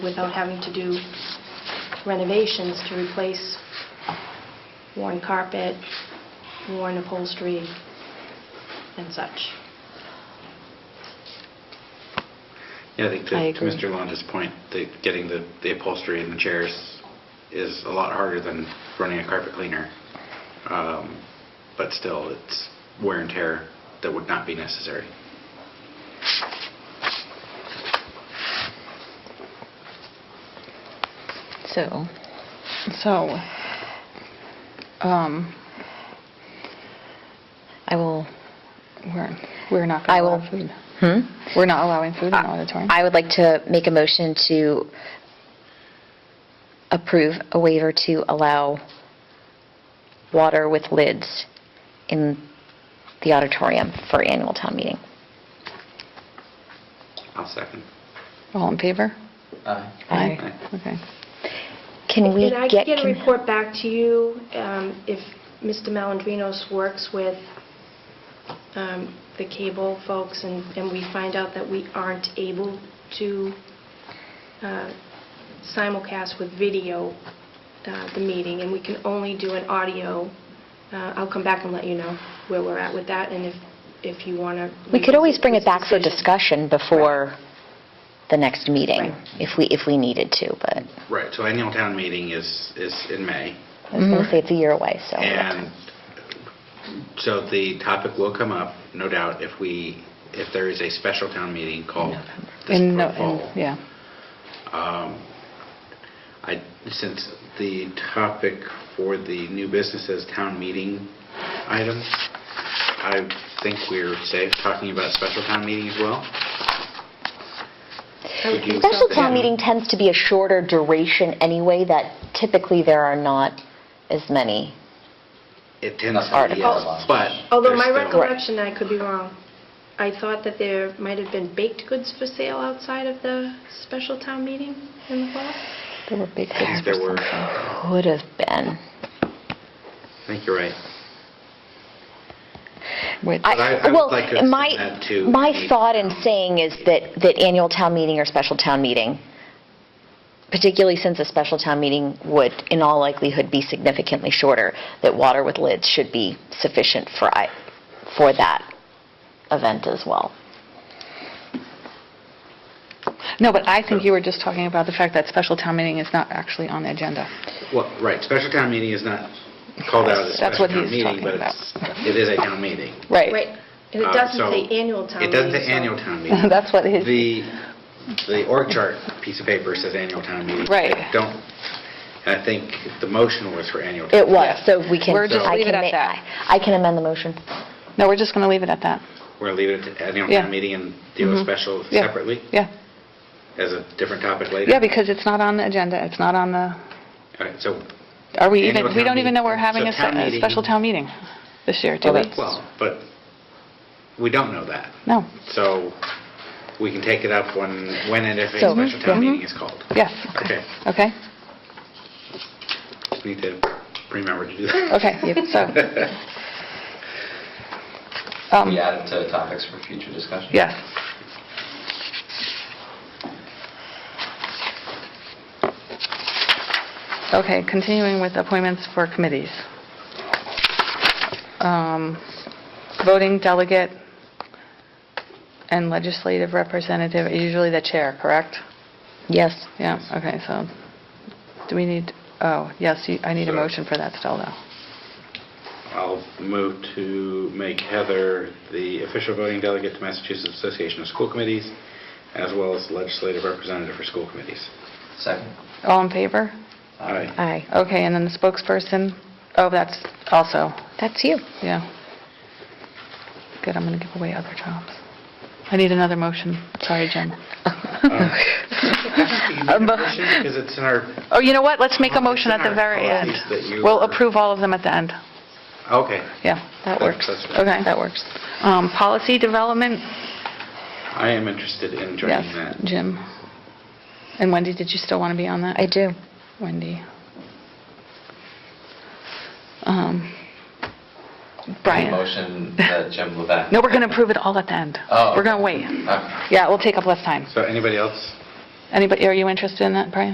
without having to do renovations to replace worn carpet, worn upholstery, and such. Yeah, I think I to to agree. Mr. Londa's point, that getting the the upholstery and the chairs is a lot harder than running a carpet cleaner. Um, But still, it's wear and tear that would not be necessary. So, So, um, I will, we're, we're not I going to will... allow food. Hmm? We're not allowing food in the auditorium. I would like to make a motion to approve a waiver to allow water with lids in the auditorium for annual town meeting. I'll second. All in favor? Aye. Okay. Can we And I get... can get a con- report back to you um, if Mr. Malandrinos works with um, the cable folks and and we find out that we aren't able to uh, simulcast with video uh, the meeting and we can only do an audio, uh, I'll come back and let you know where we're at with that and if if you want to... We could always bring it back for discussion before the next meeting, Right. if we, if we needed to, but Right, so annual town meeting is is in May. I was Mm-hmm. going to say it's a year away, so... And so the topic will come up, no doubt, if we, if there is a special town meeting called this In no- for fall. in- Yeah. Um, I, since the topic for the new business is town meeting item, I think we're safe talking about special town meeting as well. Would you- Special town Yeah. meeting tends to be a shorter duration anyway, that typically there are not as many. It tends Not to be, articles. yes, but. Although there's my still- recollection, I could be wrong, I thought that there might have been baked goods for sale outside of the special town meeting in the fall? There were big I think things. there were, I Could have been. think you're right. Which, But I- I would like to Well, my, send that to my the- thought in saying is that, that annual town meeting or special town meeting, particularly since a special town meeting would, in all likelihood, be significantly shorter, that water with lids should be sufficient for, I- for that event as well. no, but I think you were just talking about the fact that special town meeting is not actually on the agenda. Well, right, special town meeting is not called out as a That's special what town he's meeting, talking but about. it's, it is a town meeting. Right, and it Um, doesn't so say annual town meeting. It doesn't say so- annual town meeting. That's what his- The, the org chart piece of paper says annual town meeting. Right. I Don't, I think the motion was for annual. town It was, Yeah. so we can... We're just I leave can it at ma- that. I I can amend the motion. No, we're just going to leave it at that. We're going to leave it at annual Yeah. Mm-hmm. town meeting and deal with special Yeah. separately Yeah. as a different topic later. Yeah, because it's not on the agenda. It's not on the, All right, so, are we Annual even, we town don't even know we're meeting. having So a se- town a meeting- Oh, special town meeting this year, do Well, we? that's- well, but we don't know that. No. So we can take it up when, when and if a So- special town Mhm. meeting is called. Yes. Okay. Okay? Just Need to remember to do that. Okay, so, um, We add it to topics for future discussion? yes. Okay, continuing with appointments for committees. Um, Voting delegate and legislative representative are usually the chair, correct? Yes. Yeah, okay, so, do we need, oh, yes, you- I need a So- motion for that still, though. I'll move to make Heather the official voting delegate to Massachusetts Association of School Committees, as well as legislative representative for school committees. Second. All in favor? Aye. Aye. Okay, and then the spokesperson, oh, that's also, That's you. yeah. Good, I'm going to give away other jobs. I need another motion, sorry, Jen. Motion, Because it's in our, Oh, you know what, let's make It's a motion in at the our very end. policies that you We'll were- approve all of them at the end, okay. yeah. That works. That's fine. Okay. That works. Um, Policy development, I am interested in yes, joining that. Jim. And Wendy, did you still want to be on that? I do. Wendy. Um, Brian. Motion that Jim Levesque. No, we're going to approve it all at the end. Oh. We're going to wait. Okay. Yeah, it will take up less time. So anybody else? Anybody, are you interested in that, Brian?